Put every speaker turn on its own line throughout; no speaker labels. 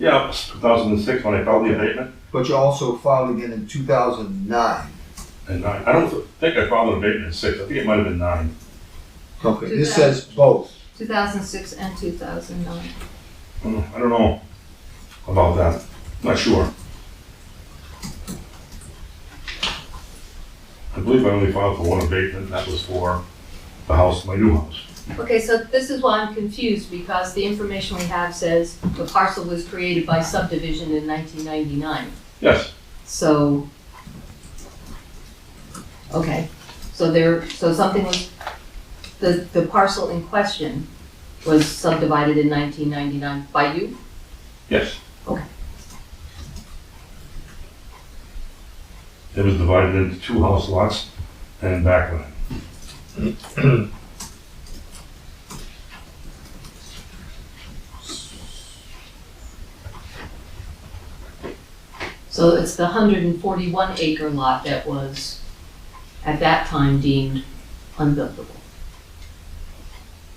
Yeah, it was 2006 when I filed the abatement,
But you also filed again in two thousand nine.
and nine. I don't think I filed an abatement in six. I think it might have been nine.
Okay, this says both.
2006 and 2009.
Mm, I don't know about that. Not sure. I believe I only filed for one abatement. and That was for the house, my new house.
Okay, so this is why I'm confused, because the information we have says the parcel was created by subdivision in 1999.
Yes,
So, okay, so there, so something was, the, the parcel in question was subdivided in 1999 by you?
yes.
Okay.
It was divided into two house lots and backland.
So it's the 141 acre lot that was at that time deemed unbuildable,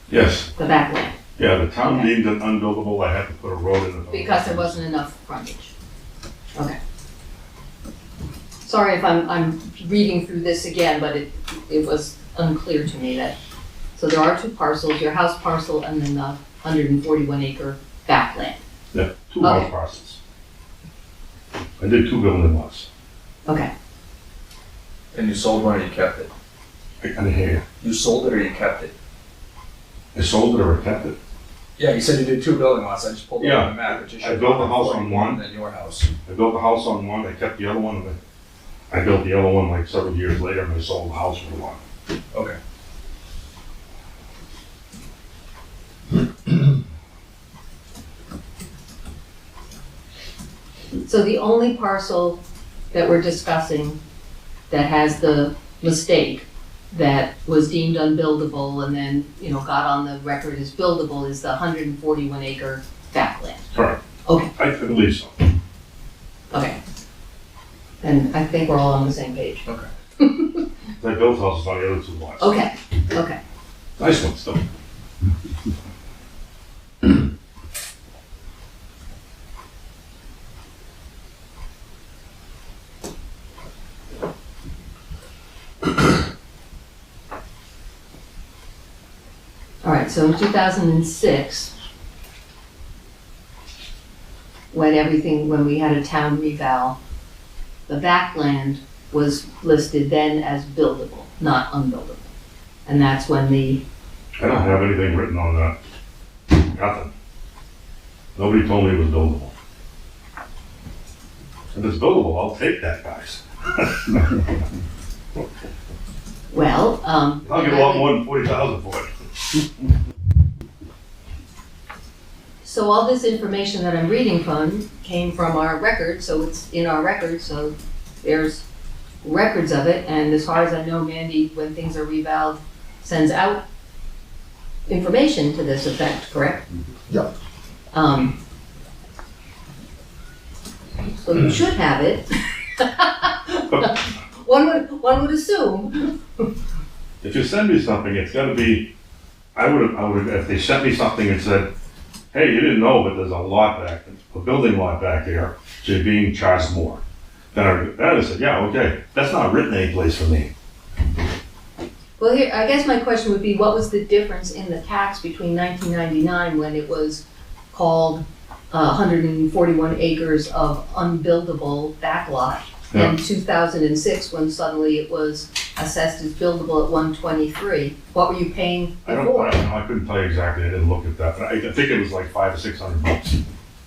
Yes,
the backland,
yeah, the town
Okay.
deemed it unbuildable. I had to put a road in it.
because there wasn't enough frontage. Okay. Sorry if I'm, I'm reading through this again, but it, it was unclear to me that, so there are two parcels, your house parcel and then the 141 acre backland.
Yeah, two house
Okay.
parcels. I did two building lots.
Okay,
And you sold one or you kept it?
I kind of hear
You sold it or you kept it?
you. I sold it or I kept it.
Yeah, you said you did two building lots. I just pulled
Yeah.
up the map. Which
I built a house on one.
Then your house.
I built the house on one, I kept the other one, and I I built the other one like several years later, and I sold the house for a lot.
Okay.
so the only parcel that we're discussing that has the mistake that was deemed unbuildable and then, you know, got on the record as buildable is the 141 acre backland.
Correct.
Okay.
I I believe so.
Okay. And I think we're all on the same page.
I built houses on the other two lots.
Okay, okay.
Nice ones though.
All right, so in 2006, when everything, when we had a town revow, the backland was listed then as buildable, not unbuildable. And that's when the,
I don't have anything written on that. Nothing. Nobody told me it was buildable. If it's buildable, I'll take that, guys.
well, um.
I'll get a lot more than forty thousand for it.
So all this information that I'm reading from came from our record, so it's in our record, so there's records of it, and as far as I know, Mandy, when things are revalved, sends out information to this effect, correct?
Yeah.
Um. So you should have it. One would, one would assume,
if you send me something, it's got to be. I would have. I would have. If they sent me something and said, "Hey, you didn't know, but there's a lot back, a building lot back there, so you're being charged more," then I would then I would have said, "Yeah, okay, that's not written anyplace for me."
well, here, I guess my question would be, what was the difference in the tax between nineteen ninety-nine when it was called uh, 141 acres of unbuildable backlot. In 2006, when suddenly it was assessed as buildable at 123, what were you paying
I don't. I
before?
don't know. I couldn't tell you exactly. I didn't look at that, but I, I think it was like five or six hundred bucks.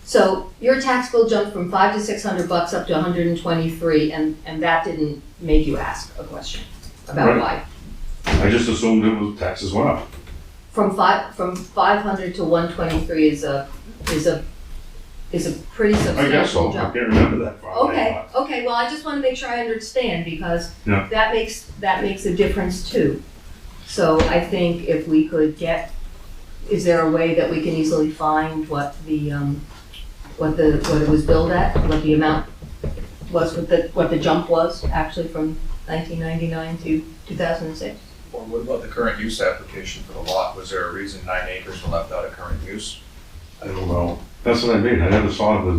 So your tax bill jumped from five to 600 bucks up to 123, and, and that didn't make you ask a question about
Right.
why?
I just assumed it was taxes went up.
From five, from 500 to 123 is a, is a, is a pretty
I guess
substantial
so.
jump.
I can't remember that far.
Okay, okay, well, I just wanna make sure I understand, because
Yeah.
that makes, that makes a difference too. So I think if we could get, is there a way that we can easily find what the, um, what the, what it was billed at, what the amount was, what the, what the jump was actually from nineteen ninety-nine to two thousand and six?
Or what about the current use application for the lot? Was there a reason nine acres were left out of current use?
I don't know. That's what I mean, I never saw the